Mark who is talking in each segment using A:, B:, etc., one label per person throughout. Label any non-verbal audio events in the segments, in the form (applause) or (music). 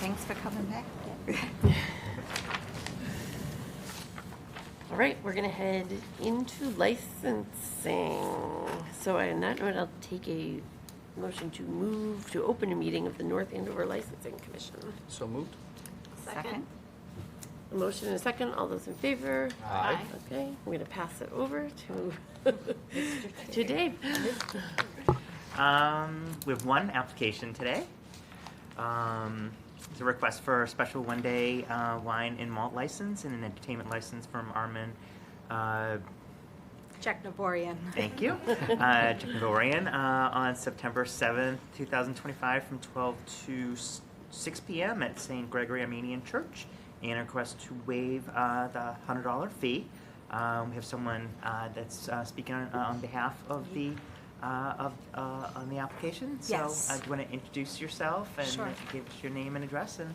A: Thanks for coming back.
B: All right, we're gonna head into licensing. So I am not know I'll take a motion to move to open a meeting of the North Andover Licensing Commission.
C: So moved?
A: Second.
B: A motion and a second, all those in favor?
C: Aye.
B: Okay, I'm gonna pass it over to, (laughs) to Dave.
D: Um, we have one application today. Um, it's a request for a special one-day uh, wine and malt license and an entertainment license from Armin. Uh,
E: Jack Naborian.
D: thank you, uh, Technivorian, uh, on September seventh, two thousand twenty-five, from twelve to s- six p.m. at St. Gregory Armenian Church, and a request to waive uh, the hundred-dollar fee. Um, we have someone uh, that's uh, speaking on, on behalf of the. Uh, of uh, on the application, so
E: Yes.
D: uh, do you want to introduce yourself and
E: Sure.
D: give us your name and address and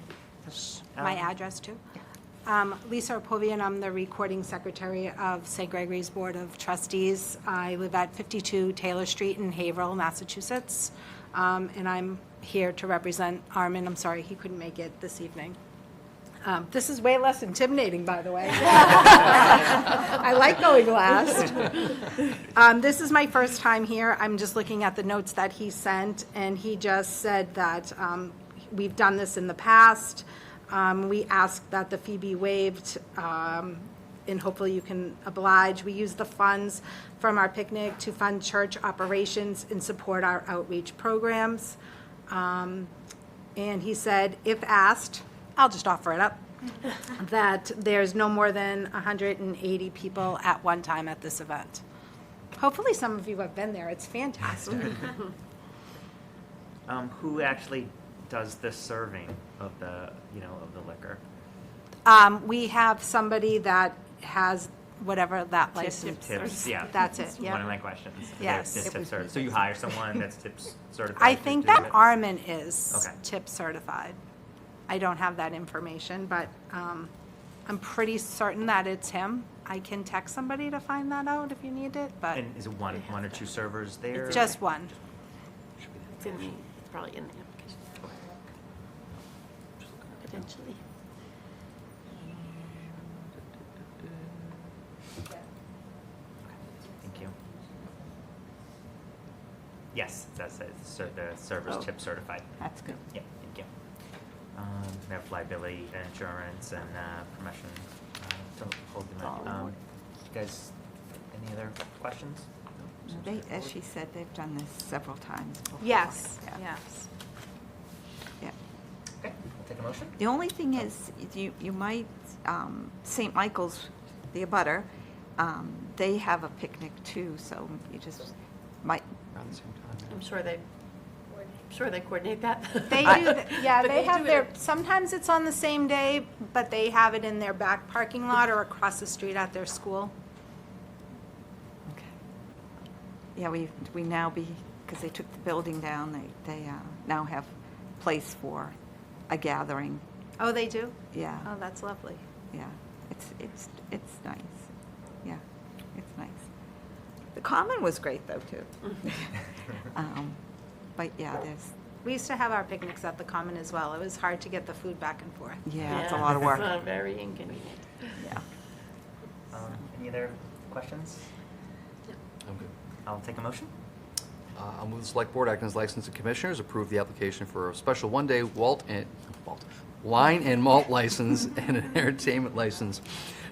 D: uh,
E: My address, too. Um, Lisa Arpovian, I'm the recording secretary of St. Gregory's Board of Trustees. I live at 52 Taylor Street in Haverhill, Massachusetts, Um, and I'm here to represent Armin. I'm sorry, he couldn't make it this evening. Um, This is way less intimidating, by the way. (laughs) I like going last. Um, This is my first time here. I'm just looking at the notes that he sent, and he just said that um, we've done this in the past. Um, We asked that the fee be waived, um, and hopefully you can oblige. We use the funds from our picnic to fund church operations and support our outreach programs. Um, And he said, if asked, I'll just offer it up, that there's no more than 180 people at one time at this event. Hopefully, some of you have been there. It's fantastic.
D: um, who actually does the serving of the you know of the liquor?
E: um, we have somebody that has whatever that license.
D: Tips, yeah.
E: That's it.
D: One of
E: Yeah.
D: my questions. They're
E: Yes.
D: just
E: It
D: tip certi- So you hire someone that's tip certified?
E: I
D: to
E: think
D: do
E: that
D: it?
E: Armin is
D: Okay.
E: tip certified. I don't have that information, but um, I'm pretty certain that it's him. I can text somebody to find that out if you need it, but
D: And is it one, one or two servers there?
E: just one.
B: It's in the, it's probably in the application. Potentially.
D: Thank you. Yes, that's it. Ser- The
B: Oh.
D: server's tip certified.
A: That's good.
D: Yeah, thank you. Um, They have liability insurance and uh, permission uh, to hold them.
B: All
D: at- um,
B: aboard.
D: You guys, any other questions?
A: They, as she said, they've done this several times before.
E: Yes.
A: Yeah,
E: Yes.
A: yeah.
D: Okay, I'll take a motion.
A: The only thing is, you, you might, um, St. Michael's, the abutter, um, they have a picnic too, so you just might,
C: Around the same time.
B: I'm sure they, I'm sure they coordinate that. (laughs)
E: They
A: I-
E: do, th- yeah,
B: But
E: they
B: do
E: have
B: it-
E: their, sometimes it's on the same day, but they have it in their back parking lot or across the street at their school.
A: okay. Yeah, we, we now be, because they took the building down, they, they uh, now have place for a gathering,
E: Oh, they do?
A: yeah.
E: Oh, that's lovely.
A: Yeah, it's, it's, it's nice. Yeah, it's nice. The common was great though, too. Um, But yeah, there's,
E: We used to have our picnics at the common as well. It was hard to get the food back and forth.
A: yeah, it's a lot of work.
B: It's (laughs) not very inconvenient.
A: Yeah.
D: Um, Any other questions?
C: I'm good.
D: I'll take a motion.
C: Uh, I'll move the select board acting as licensing commissioners, approve the application for a special one-day Walt and, Walt, wine and malt license (laughs) and an entertainment license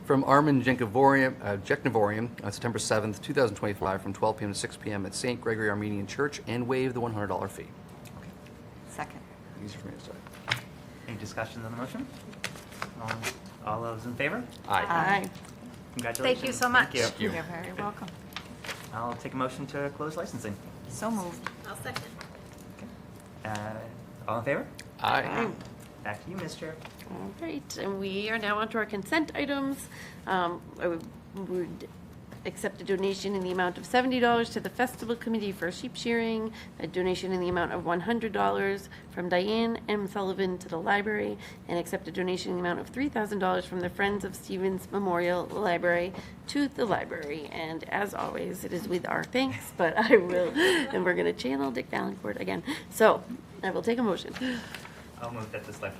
C: from Armin Jenkovorian, uh, Jeknivorian on September 7th, 2025, from 12 PM to 6 PM at St. Gregory Armenian Church, and waive the $100 fee.
A: Second.
C: Easier for me to say.
D: Any discussions on the motion? Um, All those in favor?
B: Aye.
D: Congratulations.
E: you so much.
D: Thank you.
A: You're very welcome.
D: I'll take a motion to close licensing.
A: So moved.
D: Uh, All in favor?
C: Aye.
D: Back to you, Ms. Chair.
B: All right, and we are now onto our consent items. Um, I would- would accept a donation in the amount of $70 to the Festival Committee for Sheep Shearing, a donation in the amount of $100 from Diane M. Sullivan to the library, and accept a donation in the amount of $3,000 from the Friends of Stevens Memorial Library to the library. And as always, it is with our thanks, but I will, and we're going to channel Dick Valancourt again. So I will take a motion.
D: I'll move that the select